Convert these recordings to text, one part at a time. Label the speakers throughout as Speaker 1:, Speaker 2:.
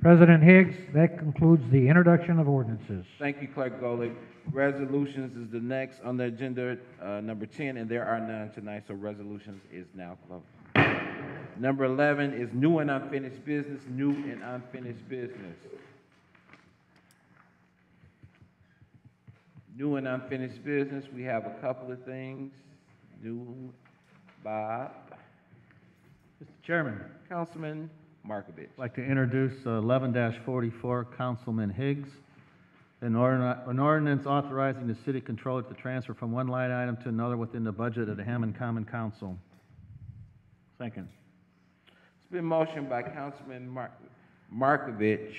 Speaker 1: President Higgs, that concludes the introduction of ordinances.
Speaker 2: Thank you, Clerk Golick. Resolutions is the next on the agenda, uh, number ten, and there are none tonight, so resolutions is now closed. Number eleven is new and unfinished business, new and unfinished business. New and unfinished business, we have a couple of things. New, Bob,
Speaker 3: Mr. Chairman,
Speaker 2: Councilman Markovich.
Speaker 3: I'd like to introduce uh, eleven forty-four, Councilman Higgs. An ordin- an ordinance authorizing the city controller to transfer from one line item to another within the budget of the Hammond Common Council. Second.
Speaker 2: It's been motioned by Councilman Mark, Markovich.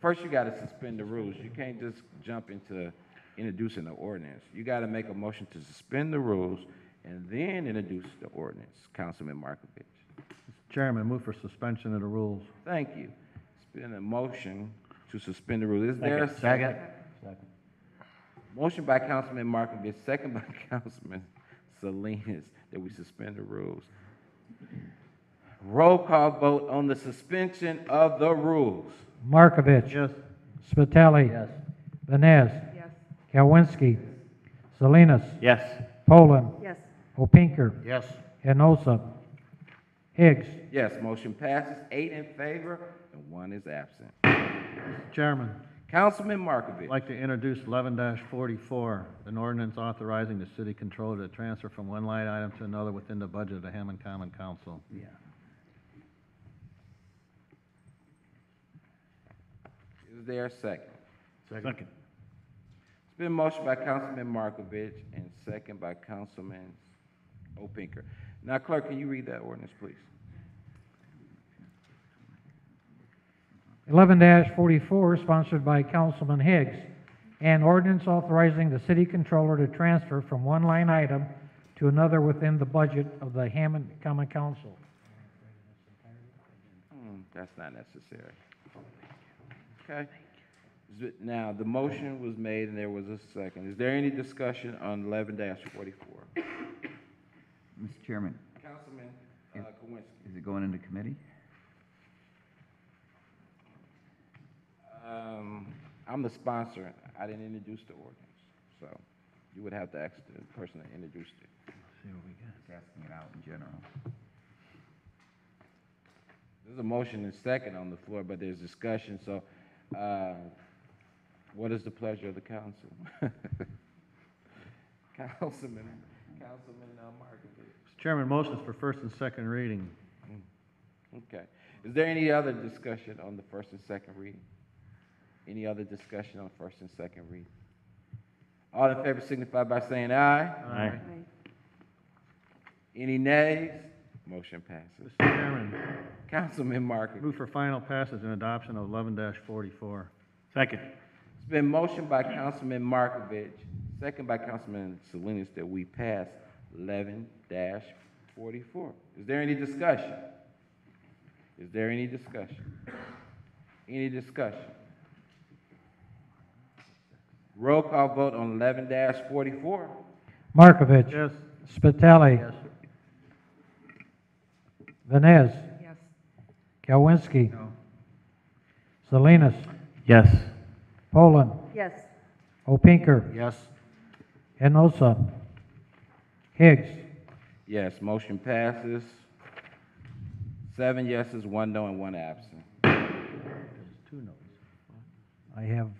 Speaker 2: First, you gotta suspend the rules. You can't just jump into introducing the ordinance. You gotta make a motion to suspend the rules and then introduce the ordinance, Councilman Markovich.
Speaker 3: Mr. Chairman, move for suspension of the rules.
Speaker 2: Thank you. It's been a motion to suspend the rules. Is there a
Speaker 3: Second.
Speaker 2: Motion by Councilman Markovich, second by Councilman Salinas, that we suspend the rules. Roll call vote on the suspension of the rules.
Speaker 1: Markovich.
Speaker 3: Yes.
Speaker 1: Spitali.
Speaker 3: Yes.
Speaker 1: Vines.
Speaker 4: Yes.
Speaker 1: Kowinski. Salinas.
Speaker 3: Yes.
Speaker 1: Poland.
Speaker 4: Yes.
Speaker 1: Opinker.
Speaker 3: Yes.
Speaker 1: Enosa. Higgs.
Speaker 2: Yes, motion passes, eight in favor and one is absent.
Speaker 3: Chairman,
Speaker 2: Councilman
Speaker 3: I'd
Speaker 2: Markovich,
Speaker 3: like to introduce eleven forty-four, an ordinance authorizing the city controller to transfer from one line item to another within the budget of the Hammond Common Council.
Speaker 2: is there a second?
Speaker 3: Second.
Speaker 2: It's been motion by Councilman Markovich and second by Councilman Opinker. Now clerk, can you read that ordinance, please?
Speaker 1: Eleven forty-four, sponsored by Councilman Higgs. An ordinance authorizing the city controller to transfer from one line item to another within the budget of the Hammond Common Council.
Speaker 2: Hmm, That's not necessary. Okay. Is it- Now, the motion was made and there was a second. Is there any discussion on eleven forty-four?
Speaker 5: Mr. Chairman,
Speaker 2: Councilman uh, Kowinski.
Speaker 5: is it going into committee?
Speaker 2: Um, I'm the sponsor. I didn't introduce the ordinance, so you would have to ask the person that introduced it.
Speaker 5: Just asking it out in general.
Speaker 2: There's a motion and second on the floor, but there's discussion, so, uh, what is the pleasure of the council? Councilman, Councilman uh, Markovich.
Speaker 3: Mr. Chairman, motions for first and second reading.
Speaker 2: Okay. Is there any other discussion on the first and second reading? Any other discussion on first and second reading? All in favor signify by saying aye.
Speaker 3: Aye.
Speaker 4: Aye.
Speaker 2: Any nays? Motion passes.
Speaker 3: Mr. Chairman,
Speaker 2: Councilman Markovich.
Speaker 3: move for final passage and adoption of eleven forty-four. Second.
Speaker 2: It's been motioned by Councilman Markovich, second by Councilman Salinas, that we pass eleven forty-four. Is there any discussion? Is there any discussion? Any discussion? Roll call vote on eleven forty-four.
Speaker 1: Markovich.
Speaker 3: Yes.
Speaker 1: Spitali. Vines.
Speaker 4: Yes.
Speaker 1: Kowinski. Salinas.
Speaker 3: Yes.
Speaker 1: Poland.
Speaker 4: Yes.
Speaker 1: Opinker.
Speaker 3: Yes.
Speaker 1: Enosa. Higgs.
Speaker 2: Yes, motion passes. Seven yeses, one no, and one absent.
Speaker 3: Two noes.
Speaker 1: I have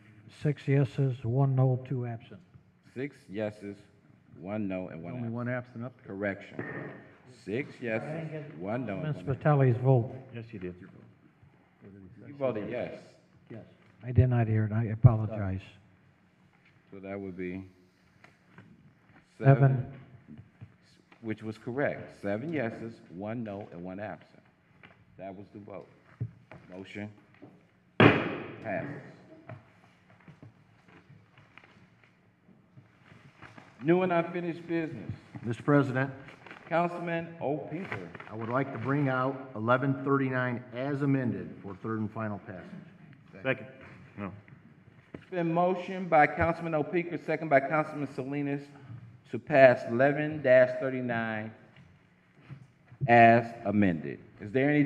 Speaker 1: six yeses, one no, two absent.
Speaker 2: Six yeses, one no, and one
Speaker 3: Only
Speaker 2: absent.
Speaker 3: one absent up there.
Speaker 2: Correction. Six yeses, one no, and one
Speaker 1: Ms.
Speaker 2: absent.
Speaker 1: Vitale's vote.
Speaker 3: Yes, you did.
Speaker 2: You voted yes,
Speaker 1: Yes. I did not hear it, I apologize.
Speaker 2: so that would be
Speaker 1: Seven,
Speaker 2: which was correct. Seven yeses, one no, and one absent. That was the vote. Motion passes. New and unfinished business.
Speaker 6: Mr. President,
Speaker 2: Councilman O'Pinker.
Speaker 6: I would like to bring out 1139 as amended for third and final passage.
Speaker 3: Second. No.
Speaker 2: It's been motioned by Councilman O'Pinker, second by Councilman Salinas, to pass eleven thirty-nine as amended. Is there any